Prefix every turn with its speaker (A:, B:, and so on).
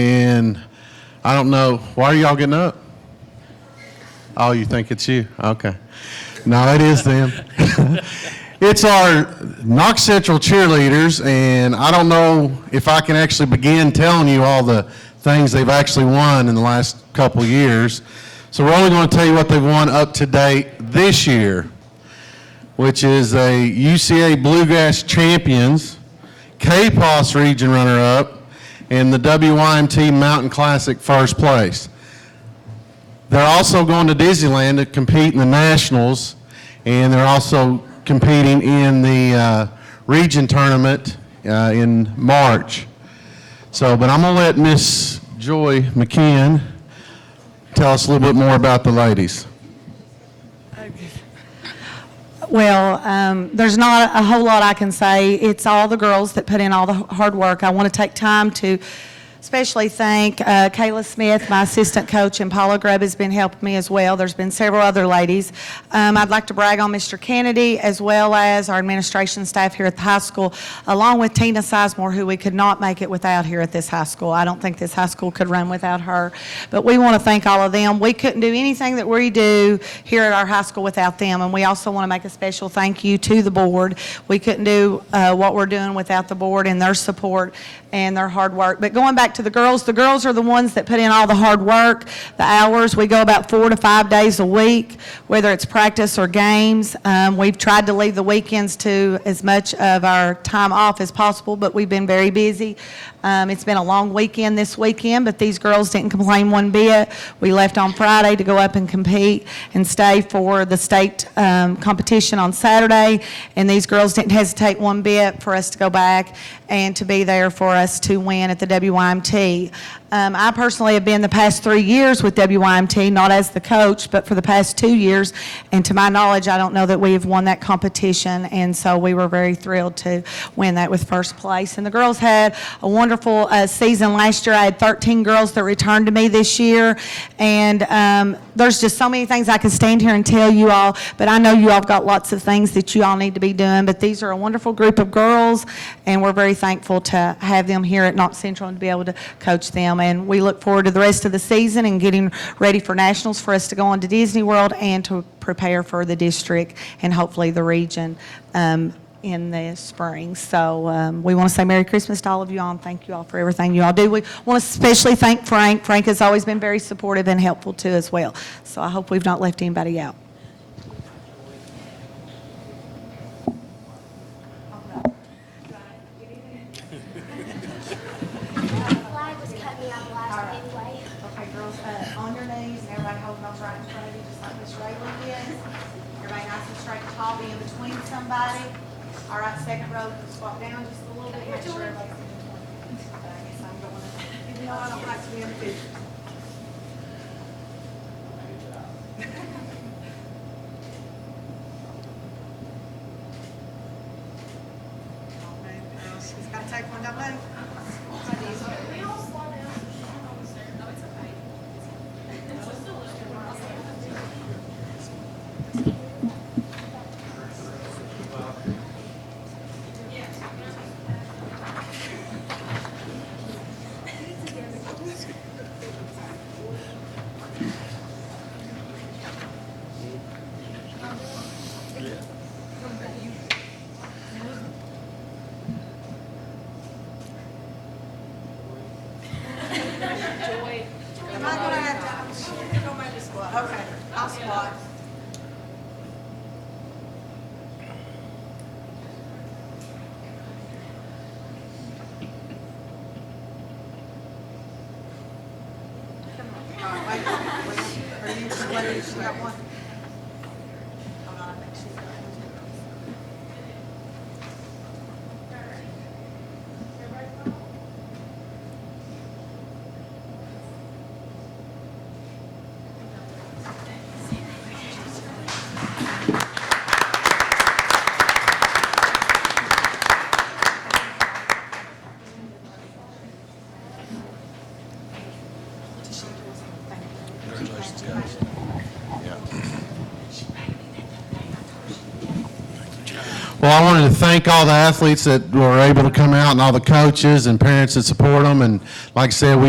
A: and I don't know why are y'all getting up. Oh, you think it's you? Okay. No, it is them. it's our Knox Central cheerleaders, and I don't know if I can actually begin telling you all the things they've actually won in the last couple years. So we're only going to tell you what they've won up to date this year, which is a UCA Bluegrass Champions, KPOS Region Runner-Up, and the WYMT Mountain Classic First Place. They're also going to Disneyland to compete in the Nationals, and they're also competing in the uh, region tournament uh, in March. So, but I'm going to let Miss Joy McKeon tell us a little bit more about the ladies.
B: Well, um, there's not a whole lot I can say. It's all the girls that put in all the h- hard work. I want to take time to especially thank uh, Kayla Smith, my assistant coach, and Paula Grubb has been helping me as well. There's been several other ladies. Um, I'd like to brag on Mr. Kennedy as well as our administration staff here at the high school, along with Tina Sizemore, who we could not make it without here at this high school. I don't think this high school could run without her. But we want to thank all of them. We couldn't do anything that we do here at our high school without them. And we also want to make a special thank you to the board. We couldn't do uh, what we're doing without the board and their support and their hard work. But going back to the girls, the girls are the ones that put in all the hard work, the hours. We go about four to five days a week, whether it's practice or games. Um, We've tried to leave the weekends to as much of our time off as possible, but we've been very busy. Um, It's been a long weekend this weekend, but these girls didn't complain one bit. We left on Friday to go up and compete and stay for the state um, competition on Saturday, and these girls didn't hesitate one bit for us to go back and to be there for us to win at the WYMT. Um, I personally have been the past three years with WYMT, not as the coach, but for the past two years. And to my knowledge, I don't know that we have won that competition. And so we were very thrilled to win that with first place. And the girls had a wonderful uh, season last year. I had 13 girls that returned to me this year. And um, there's just so many things I could stand here and tell you all, but I know you all have got lots of things that you all need to be doing. But these are a wonderful group of girls, and we're very thankful to have them here at Knox Central and to be able to coach them. And we look forward to the rest of the season and getting ready for nationals for us to go on to Disney World and to prepare for the district and hopefully the region um, in the spring. So um, we want to say Merry Christmas to all of you all, and thank you all for everything you all do. We want to especially thank Frank. Frank has always been very supportive and helpful too as well. So I hope we've not left anybody out.
C: flag was cutting out last anyway.
B: Okay, girls, uh, on your knees, and everybody holding those right in front of you, just like Miss Raylan did. Everybody nice and straight and tall, be in between somebody. All right, second row, squat down just a little bit, make sure everybody's in between. But I guess I'm going, even though I don't like to be in the picture. She's got to take one, don't they? Am I gonna have to, don't make me squat, okay, I'll squat. All right, wait, wait, are you, what is, she got one? Hold on, I think she's got one.
D: Congratulations, guys.
A: Well, I wanted to thank all the athletes that were able to come out and all the coaches and parents that support them. And like I said, we